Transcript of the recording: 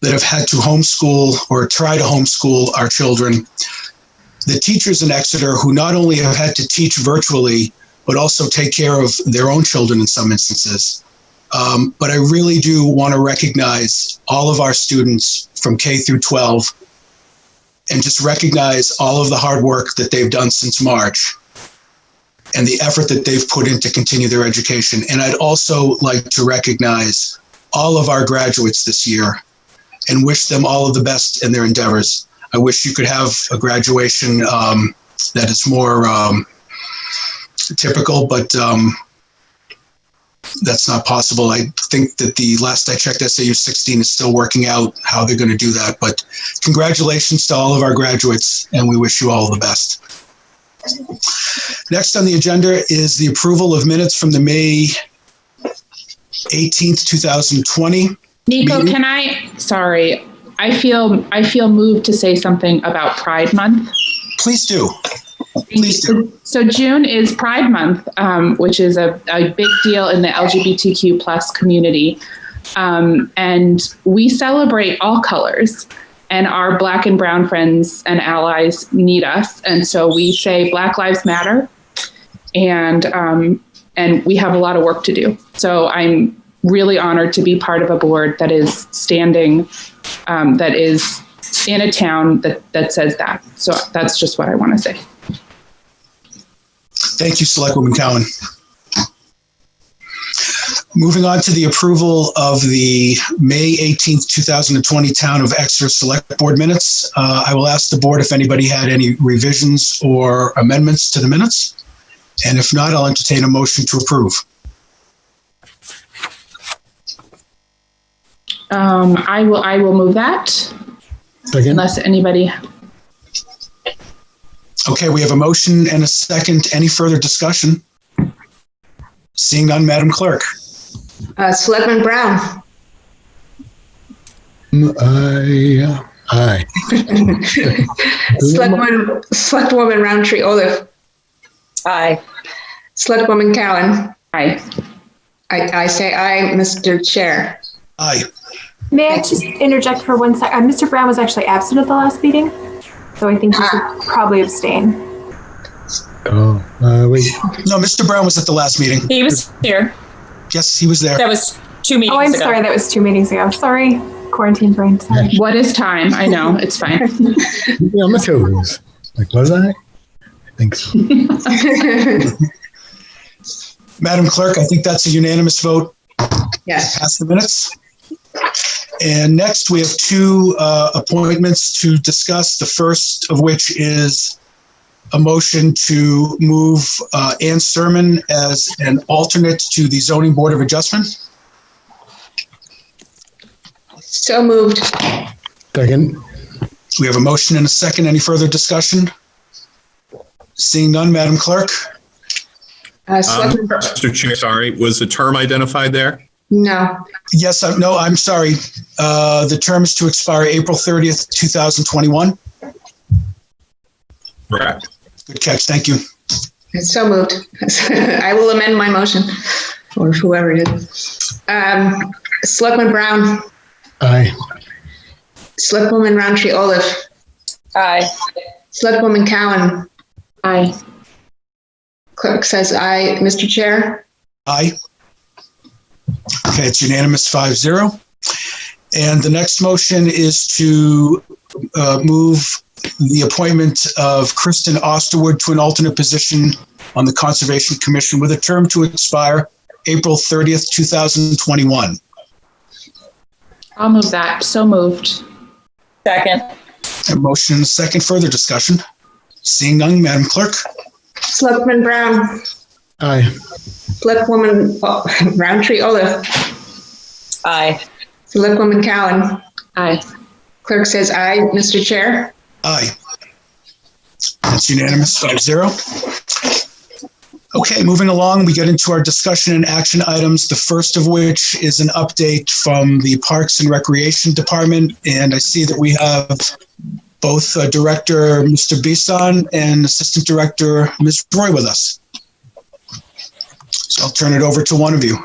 that have had to homeschool or try to homeschool our children. The teachers in Exeter who not only have had to teach virtually, but also take care of their own children in some instances. Um, but I really do want to recognize all of our students from K through 12 and just recognize all of the hard work that they've done since March and the effort that they've put in to continue their education. And I'd also like to recognize all of our graduates this year and wish them all of the best in their endeavors. I wish you could have a graduation um, that is more um, typical, but um, that's not possible. I think that the last I checked, SAU 16 is still working out how they're going to do that. But congratulations to all of our graduates, and we wish you all the best. Next on the agenda is the approval of minutes from the May 18th, 2020. Nico, Meeting. can I, sorry, I feel, I feel moved to say something about Pride Month. Please do. Please do. So June is Pride Month, um, which is a, a big deal in the LGBTQ plus community. Um, and we celebrate all colors and our black and brown friends and allies need us. And so we say Black Lives Matter and, um, and we have a lot of work to do. So I'm really honored to be part of a board that is standing, um, that is in a town that, that says that. So that's just what I want to say. Thank you, Selectwoman Cowan. Moving on to the approval of the May 18th, 2020 Town of Exeter Select Board Minutes. Uh, I will ask the board if anybody had any revisions or amendments to the minutes. And if not, I'll entertain a motion to approve. Um, I will, I will move that Second, unless anybody, Okay, we have a motion and a second. Any further discussion? Seeing none, Madam Clerk. Uh, Selectman Brown. aye, aye. Selectwoman, Selectwoman Roundtree Olaf. Aye. Selectwoman Cowan. aye. I, I say aye, Mr. Chair. Aye. May I just interject for one sec? Uh, Mr. Brown was actually absent at the last meeting, so I think he should probably abstain. Oh, uh, wait, No, Mr. Brown was at the last meeting. He was here. Yes, he was there. That was two meetings Oh, I'm ago. sorry, that was two meetings ago. Sorry, quarantine brain. Sorry. What is time? I know, it's fine. maybe I'm a toes. Like, was I? I think so. Madam Clerk, I think that's a unanimous vote. Yes. pass the minutes. And next, we have two uh, appointments to discuss, the first of which is a motion to move uh, Ann Sermon as an alternate to the Zoning Board of Adjustment. So moved. Second, We have a motion and a second. Any further discussion? Seeing none, Madam Clerk? Uh, Um, Selectman, Br- Mr. Chair, sorry, was the term identified there? no. Yes, I- no, I'm sorry. Uh, The term is to expire April 30th, 2021. Correct. Good catch. Thank you. So moved. I will amend my motion, or whoever it is. Um, Selectman Brown. aye. Selectwoman Roundtree Olaf. Aye. Selectwoman Cowan. Aye. Clerk says aye, Mr. Chair. Aye. Okay, it's unanimous, five zero. And the next motion is to uh, move the appointment of Kristen Osterwood to an alternate position on the Conservation Commission with a term to expire April 30th, 2021. I'll move that. So moved. Second. A motion and a second, further discussion. Seeing none, Madam Clerk? Selectman Brown. Aye. Selectwoman oh, Roundtree Olaf. Aye. Selectwoman Cowan. Aye. Clerk says aye, Mr. Chair. Aye. That's unanimous, five zero. Okay, moving along, we get into our discussion and action items, the first of which is an update from the Parks and Recreation Department. And I see that we have both uh, Director, Mr. Bisson, and Assistant Director, Ms. Roy with us. So I'll turn it over to one of you.